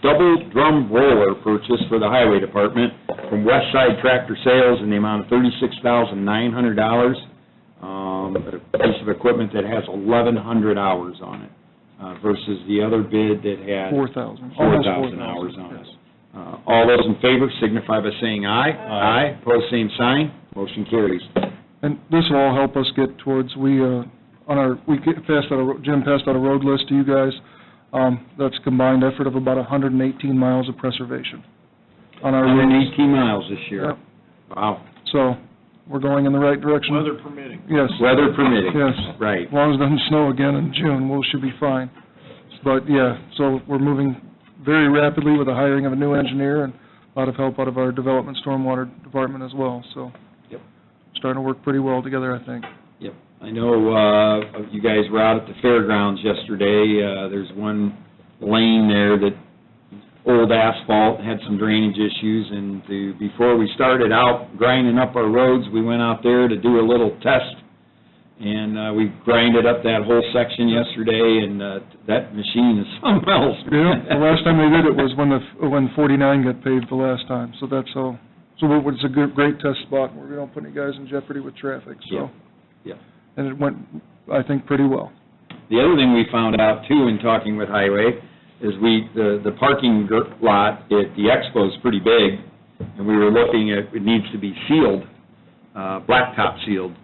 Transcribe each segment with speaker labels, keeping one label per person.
Speaker 1: double drum roller purchase for the highway department from West Side Tractor Sales in the amount of thirty-six thousand nine hundred dollars. Um, a piece of equipment that has eleven hundred hours on it, uh, versus the other bid that had.
Speaker 2: Four thousand.
Speaker 1: Four thousand hours on it. Uh, All those in favor signify by saying aye. Aye. Pose same sign, motion carries.
Speaker 2: And this will all help us get towards, we, uh, on our, we get, passed out a, ro- Jim passed out a road list to you guys. Um, that's combined effort of about hundred and eighteen miles of preservation on our
Speaker 1: Hundred and
Speaker 2: roads.
Speaker 1: eighteen miles this year.
Speaker 2: Yep.
Speaker 1: Wow,
Speaker 2: So, we're going in the right direction.
Speaker 3: Weather permitting.
Speaker 2: Yes.
Speaker 1: weather permitting.
Speaker 2: Yes.
Speaker 1: Right.
Speaker 2: As long as it doesn't snow again in June, we should be fine. But, yeah, so we're moving very rapidly with the hiring of a new engineer and a lot of help out of our development stormwater department as well, so.
Speaker 1: Yep.
Speaker 2: Starting to work pretty well together, I think.
Speaker 1: Yep. I know, uh, you guys were out at the fairgrounds yesterday. Uh, there's one lane there that old asphalt had some drainage issues and the, before we started out grinding up our roads, we went out there to do a little test. And, uh, we grinded up that whole section yesterday and, uh, that machine is something else.
Speaker 2: Yeah, the last time they did it was when the, when 49 got paved the last time, so that's all. So it was a good, great test spot, where we don't put any guys in jeopardy with traffic,
Speaker 1: Yeah,
Speaker 2: so.
Speaker 1: yeah.
Speaker 2: And it went, I think, pretty well.
Speaker 1: The other thing we found out too in talking with Highway is we, the, the parking gr- lot at the expo is pretty big, and we were looking at, it needs to be sealed, uh, blacktop sealed.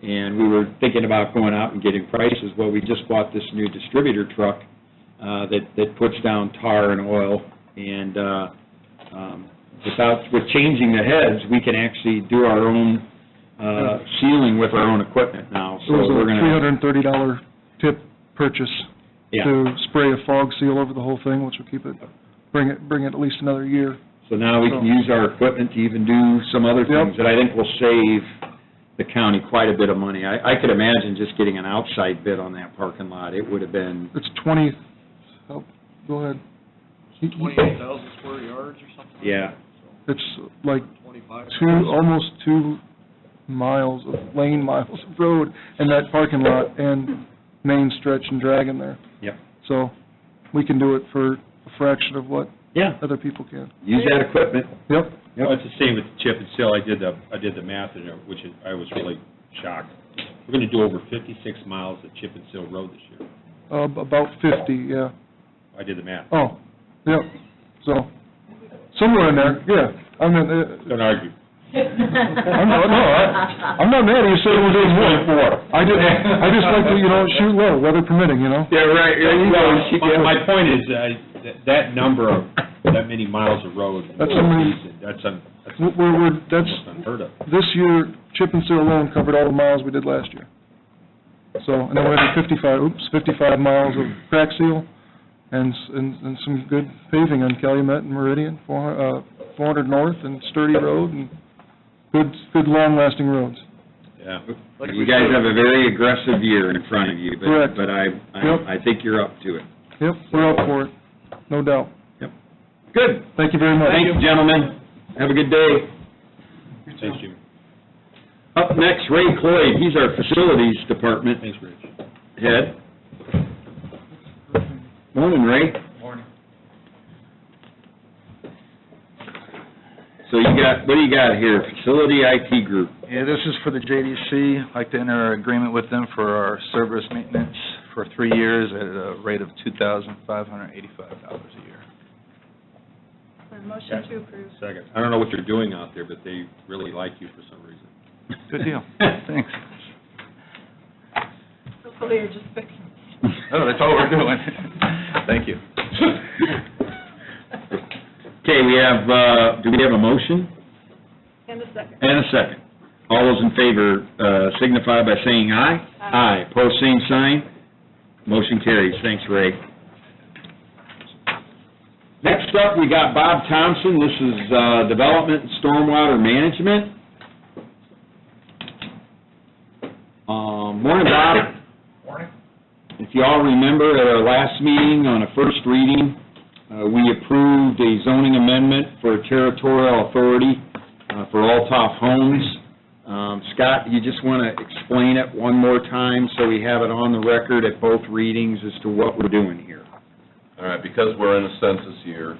Speaker 1: And we were thinking about going out and getting prices. Well, we just bought this new distributor truck, uh, that, that puts down tar and oil. And, uh, um, without, with changing the heads, we can actually do our own, uh, sealing with our own equipment now.
Speaker 2: It
Speaker 1: So
Speaker 2: was
Speaker 1: we're gonna.
Speaker 2: a $330 tip purchase
Speaker 1: Yeah.
Speaker 2: to spray a fog seal over the whole thing, which will keep it, bring it, bring it at least another year.
Speaker 1: So now we can use our equipment to even do some other things that I think will save the county quite a bit of money. I, I could imagine just getting an outside bid on that parking lot, it would have been,
Speaker 2: It's 20, help, go ahead.
Speaker 3: Twenty-eight thousand square yards or something? like
Speaker 1: Yeah.
Speaker 3: that,
Speaker 2: It's like
Speaker 3: so Twenty-five.
Speaker 2: two, almost two miles of lane miles of road in that parking lot and main stretch and drag in there.
Speaker 1: Yep.
Speaker 2: So we can do it for a fraction of what
Speaker 1: yeah,
Speaker 2: other people can.
Speaker 1: use that equipment.
Speaker 2: Yep,
Speaker 4: Well, it's the same with chip and seal, I did the, I did the math, and it- which is- I was really shocked. We're gonna do over fifty-six miles of chip and seal road this year.
Speaker 2: ab- about 50, yeah.
Speaker 4: I did the math,
Speaker 2: Oh, yep, so somewhere in there, yeah. I mean, uh,
Speaker 4: don't argue.
Speaker 2: I'm not, no, I- I'm not mad at you saying we're doing more. I just, I just like to, you know, shoot low, weather permitting, you know?
Speaker 1: Yeah, right,
Speaker 4: Well, My, my point is, uh, that, that number of, that many miles of road. in
Speaker 2: That's how many-
Speaker 4: That's, un- that's
Speaker 2: We're- We're, we're, that's,
Speaker 4: almost unheard of.
Speaker 2: this year, chip and seal alone covered all the miles we did last year. So, and then we have the 55, oops, 55 miles of crack seal and, s- and and some good paving on Calumet and Meridian, 400 uh, 400 North and Sturdy Road and good, good long-lasting roads.
Speaker 4: Yeah,
Speaker 3: Like we
Speaker 1: You guys
Speaker 3: said,
Speaker 1: have a very aggressive year in front of you, but,
Speaker 2: Correct.
Speaker 1: but I,
Speaker 2: Yep.
Speaker 1: I, I think you're up to it.
Speaker 2: Yep, we're up for it, no doubt.
Speaker 1: Good,
Speaker 2: Thank you very much.
Speaker 1: thank you, gentlemen, have a good day.
Speaker 4: thanks, Jimmy,
Speaker 1: Up next, Ray Cloyd, he's our facilities department
Speaker 4: thanks, Rich.
Speaker 1: head. Morning, Ray.
Speaker 5: Morning.
Speaker 1: So you got, what do you got here? Facility IT group.
Speaker 5: Yeah, this is for the JDC. I'd like to enter an agreement with them for our service maintenance for three years at a rate of $2,585 a year.
Speaker 6: Motion to approve.
Speaker 4: Second, I don't know what you're doing out there, but they really like you for some reason.
Speaker 5: Good deal. Thanks.
Speaker 6: Hopefully you're just fixing.
Speaker 5: Oh, that's all we're doing. Thank you.
Speaker 1: Okay, we have, uh, do we have a motion
Speaker 6: And a second.
Speaker 1: and a second? All those in favor uh, signify by saying aye.
Speaker 6: Aye.
Speaker 1: Aye, pose same sign. Motion carries. Thanks, Ray. Next up, we got Bob Thompson. This is uh, Development and Stormwater Management. Um, Morning, Bob.
Speaker 5: Morning.
Speaker 1: If you all remember, at our last meeting on a first reading, uh, we approved a zoning amendment for territorial authority uh, for Altough Homes. Um, Scott, you just want to explain it one more time so we have it on the record at both readings as to what we're doing here?
Speaker 7: All right, because we're in a census year,